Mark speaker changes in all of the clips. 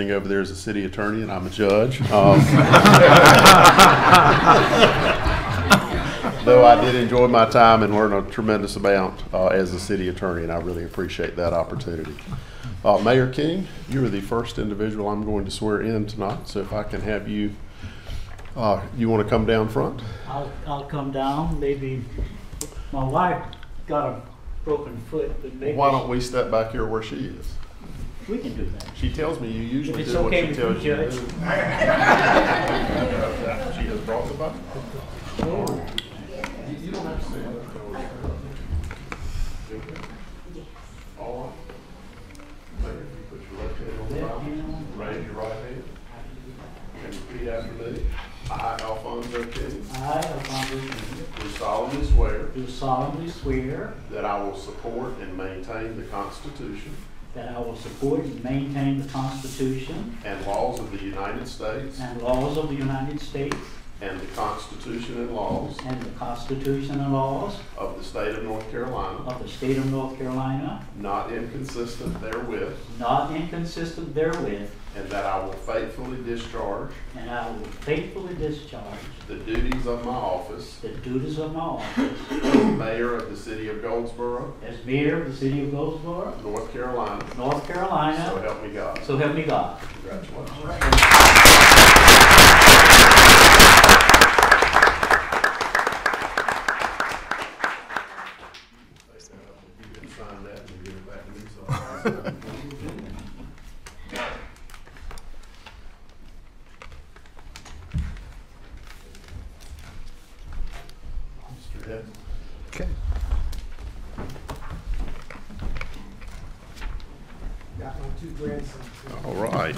Speaker 1: Thing over there is a city attorney and I'm a judge. Um, Though I did enjoy my time and learn a tremendous amount uh, as a city attorney, and I really appreciate that opportunity. Uh, Mayor King, you are the first individual I'm going to swear in tonight, so if I can have you, uh, you want to come down front?
Speaker 2: I'll, I'll come down, maybe, my wife got a broken foot, but maybe
Speaker 1: Why don't we step back here where she is?
Speaker 2: we can do that.
Speaker 1: She tells me you usually
Speaker 2: it's
Speaker 1: do what
Speaker 2: okay
Speaker 1: she
Speaker 2: with
Speaker 1: tells
Speaker 2: you,
Speaker 1: you to
Speaker 2: Judge.
Speaker 1: do. She has brought the Bible. You- you don't have to say that. All right. Mayor, if you put your left hand on the Bible, raise your right hand, and repeat after me. I, Alfonso King,
Speaker 2: I, Alfonso King,
Speaker 1: do solemnly swear
Speaker 2: do solemnly swear
Speaker 1: that I will support and maintain the Constitution
Speaker 2: that I will support and maintain the Constitution
Speaker 1: and laws of the United States
Speaker 2: and laws of the United States
Speaker 1: and the Constitution and laws
Speaker 2: and the Constitution and laws
Speaker 1: of the state of North Carolina,
Speaker 2: of the state of North Carolina,
Speaker 1: not inconsistent therewith,
Speaker 2: not inconsistent therewith,
Speaker 1: and that I will faithfully discharge
Speaker 2: and I will faithfully discharge
Speaker 1: the duties of my office
Speaker 2: the duties of my office
Speaker 1: as mayor of the city of Goldsboro,
Speaker 2: as mayor of the city of Goldsboro,
Speaker 1: North Carolina.
Speaker 2: North
Speaker 1: So
Speaker 2: Carolina,
Speaker 1: help me God.
Speaker 2: so help me God.
Speaker 1: Congratulations. Sign that and give it back to me, so I'll sign it. Mr. Head.
Speaker 3: Okay.
Speaker 4: Got my two grandsons.
Speaker 1: All right.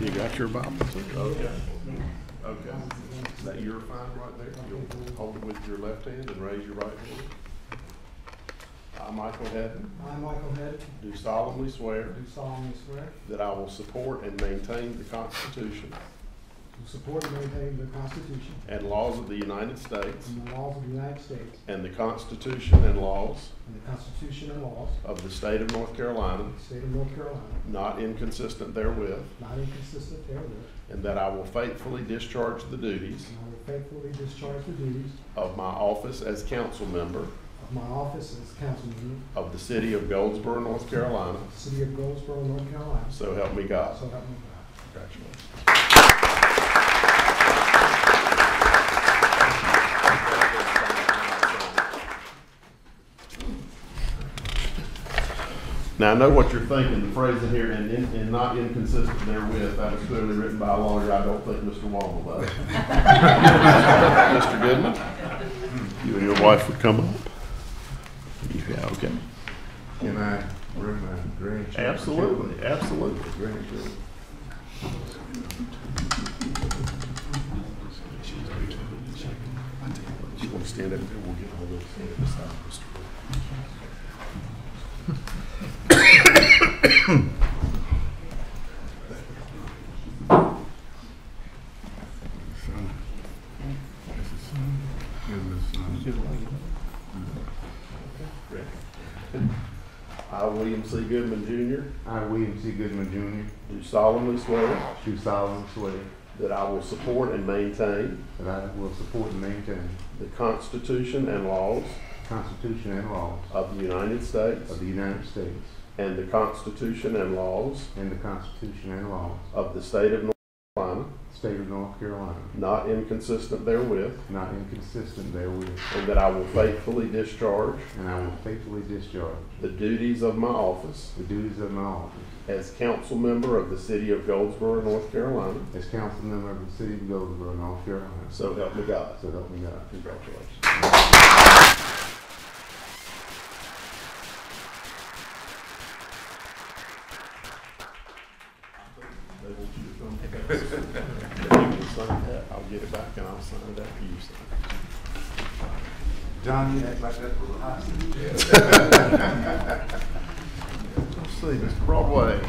Speaker 1: You got your Bible? Okay. Okay. Is that your find right there? You'll hold it with your left hand and raise your right hand. I, Michael Hadden,
Speaker 4: I, Michael Head,
Speaker 1: do solemnly swear
Speaker 4: do solemnly swear
Speaker 1: that I will support and maintain the Constitution
Speaker 4: to support and maintain the Constitution
Speaker 1: and laws of the United States
Speaker 4: and the laws of the United States
Speaker 1: and the Constitution and laws
Speaker 4: and the Constitution and laws
Speaker 1: of the state of North Carolina,
Speaker 4: of the state of North Carolina,
Speaker 1: not inconsistent therewith,
Speaker 4: not inconsistent therewith,
Speaker 1: and that I will faithfully discharge the duties
Speaker 4: and I will faithfully discharge the duties
Speaker 1: of my office as council member
Speaker 4: of my office as council member
Speaker 1: of the city of Goldsboro, North Carolina,
Speaker 4: of the city of Goldsboro, North Carolina, so
Speaker 1: So help me God.
Speaker 4: help me God.
Speaker 1: Congratulations. Now, I know what you're thinking, the phrase in here, and, in- and not inconsistent therewith, that was clearly written by a lawyer, I don't think Mr. Wong will let it. Mr. Goodman? You and your wife would come up? Yeah, okay.
Speaker 5: Can I bring my grandchildren?
Speaker 1: Absolutely, absolutely.
Speaker 5: Grandchildren.
Speaker 1: You want to stand up there, we'll get all those, stand up beside Mr. Wong.
Speaker 5: Son. That's his son. Here's his son.
Speaker 1: I, William C. Goodman Jr.,
Speaker 5: I, William C. Goodman
Speaker 1: do solemnly swear
Speaker 5: Jr., do solemnly swear
Speaker 1: that I will support and maintain
Speaker 5: that I will support and maintain
Speaker 1: the Constitution and laws
Speaker 5: the Constitution and laws
Speaker 1: of the United States
Speaker 5: of the United States
Speaker 1: and the Constitution and laws
Speaker 5: and the Constitution and laws
Speaker 1: of the State of North Carolina,
Speaker 5: of the State of North Carolina,
Speaker 1: not inconsistent therewith,
Speaker 5: not inconsistent therewith,
Speaker 1: and that I will faithfully discharge
Speaker 5: and I will faithfully discharge
Speaker 1: the duties of my office
Speaker 5: the duties of my office
Speaker 1: as council member of the City of Goldsboro, North Carolina.
Speaker 5: as council member of the City of Goldsboro, North Carolina.
Speaker 1: So help me God.
Speaker 5: So help me God.
Speaker 1: Congratulations. They want you to come pick up this. If you can sign that, I'll get it back and I'll sign it after you sign.
Speaker 5: John, you act like that was a hostage.
Speaker 1: Let's see, Mr. Broadway.